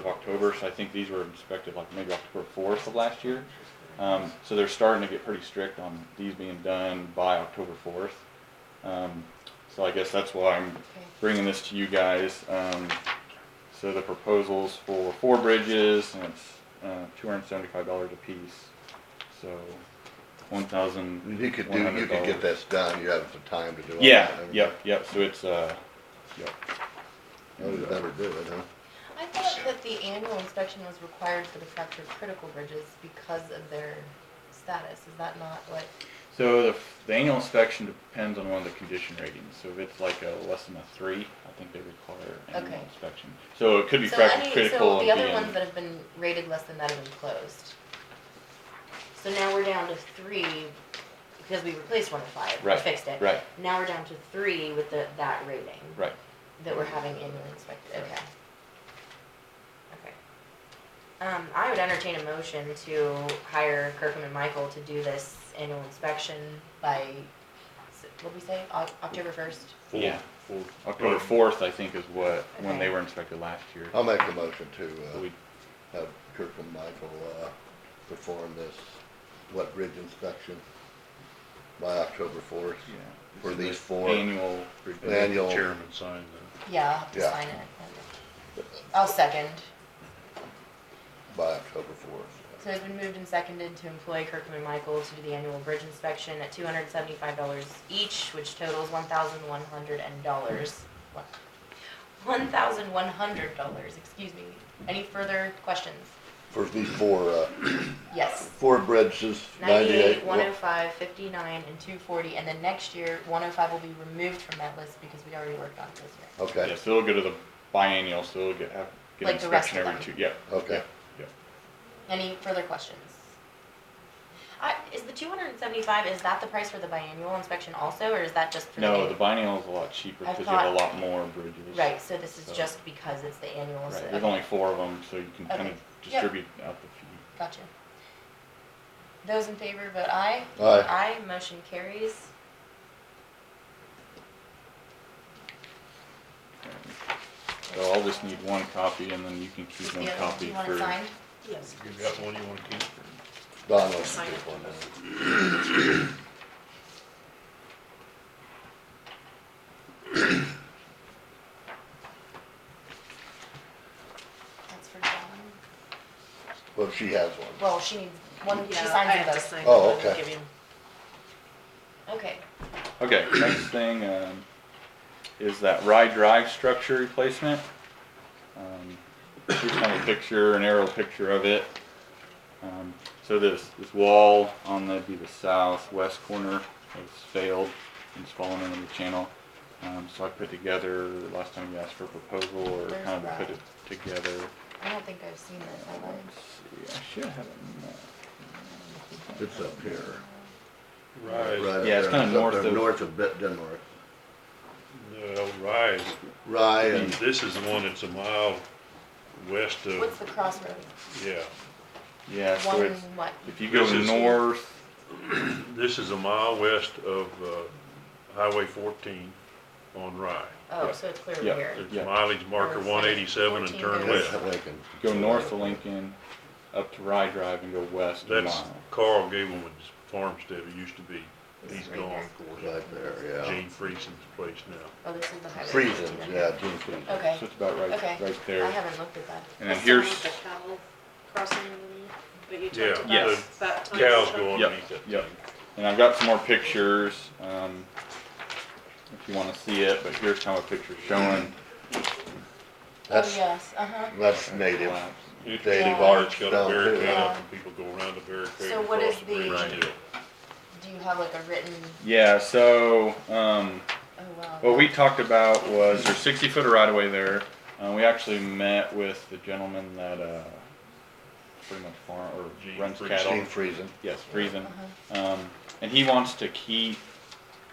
of October, so I think these were inspected like maybe October fourth of last year. Um, so they're starting to get pretty strict on these being done by October fourth. Um, so I guess that's why I'm Okay. bringing this to you guys. Um, so the proposals for four bridges, and it's, uh, two hundred and seventy-five dollars a piece, so one thousand. You could do, you could get this done, you have some time to do it. Yeah, yep, yep, so it's, uh, yep. You would never do it, huh? I thought that the annual inspection was required for the fractured critical bridges because of their status. Is that not what? So the, the annual inspection depends on one of the condition ratings, so if it's like a less than a three, I think they require annual Okay. inspection. So it could be So fracture any- critical So and the other being- ones that have been rated less than that have been closed. So now we're down to three, because we replaced one of five, we Right, fixed it. right. Now we're down to three with the, that rating Right, that we're having annually inspected, okay. Okay. Um, I would entertain a motion to hire Kirkham and Michael to do this annual inspection by, s- what'd we say, Oc- October first? yeah. October fourth, I think, is what, when they Okay. were inspected last year. I'll make the motion to, So uh, we- have Kirk and Michael, uh, perform this, what, bridge inspection by October fourth? yeah. For This is these the four. Annual. Daniel. Chairman signed the, Yeah, I'll have to Yeah. sign it. I'll second. By October fourth. So it's been moved and seconded to employ Kirkham and Michael to do the annual bridge inspection at two hundred and seventy-five dollars each, which totals one thousand one hundred and dollars. One thousand one hundred dollars, excuse me. Any further questions? For these four, uh, Yes. four bridges, Ninety-eight, ninety-eight. one oh five, fifty-nine, and two forty, and then next year, one oh five will be removed from that list because we already worked on it this year. Okay, Yeah, so it'll go to the biennial, so it'll get, have, get Like the rest inspection of every two, them. yeah. okay. yeah, yeah. Any further questions? I, is the two hundred and seventy-five, is that the price for the biannual inspection also, or is that just for the? No, annual? the biennial is a lot cheaper I because you have a thought- lot more bridges. Right, so this So- is just because it's the annual, so, Right, there's okay, only four of them, so you can kind Okay. of Yep. distribute out the fee. gotcha. Those in favor vote aye. Aye. Aye, motion carries. So I'll just need one copy and then you can keep Is one the other one- copy Do you for. want it signed? Yes. you got the one you wanna keep? Don wants to Sign take it. one now. That's for John. Well, she has one. Well, she needs, one, she Yeah, signs I it have to though. sign Oh, it and okay. give him- Okay, Okay, next thing, um, is that ride drive structure replacement. Um, Here's kind of a picture, an aerial picture of it. Um, so this, this wall on the, be the southwest corner has failed and it's fallen into the channel. Um, so I put together, last time you asked for a proposal or Where's kind of that? put it together. I don't think I've seen this Uh, online. let's see, I should have it. marked. It's up here. Rise, Right Yeah, it's up there. kinda north up there of- North of Bit- Denmark. no, rise, Rye and this is the one that's a mile west What's of, the crossroad? yeah. Yeah, so One, it's, what? if you go This is- north, This is a mile west of, uh, Highway fourteen on Rye. Oh, yeah. so it's clear Yeah. here. It's Yeah. mileage marker Or it's one eighty-seven and 14 turn goes- left. that's Lincoln. go north of Lincoln, up to Rye Drive and go west a That's mile. Carl Gableman's farmstead, it used to be, This he's is right gone, here. of course. Right there, yeah. Gene Friesen's place now. Oh, this is the highway. Friesens, yeah, Gene Friesen. Okay, So it's about okay. right, right I there. haven't looked at that. And then Sign here's, The cow crossing, but you Yeah, talked about yes. that time. Cows go Yep, underneath that yep. thing. and I've got some more pictures, um, if you wanna see it, but here's kind of a picture showing. Oh, That's, yes, uh-huh. that's native. collapse. It's They pretty walk large, got down a barricade too. up and people go around the barricade So what across is the bridge the- still. Do you have like a written, Yeah, so, um, oh wow. What we talked about was there's sixty foot of right of way there. Uh, we actually met with the gentleman that, uh, pretty much farm, Gene or runs Friesen. cattle. Gene Friesen. Yes, freezing. Um, and he wants to keep,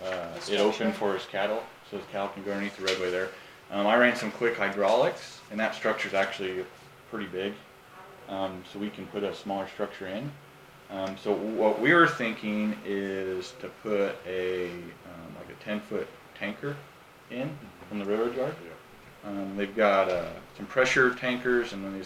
uh, The it structure? open for his cattle, so his cattle can go underneath the roadway there. Um, I ran some quick hydraulics, and that structure's actually pretty big, um, so we can put a smaller structure in. Um, so what we were thinking is to put a, um, like a ten-foot tanker in from the railroad yard. Yeah. Um, they've got, uh, some pressure tankers and then these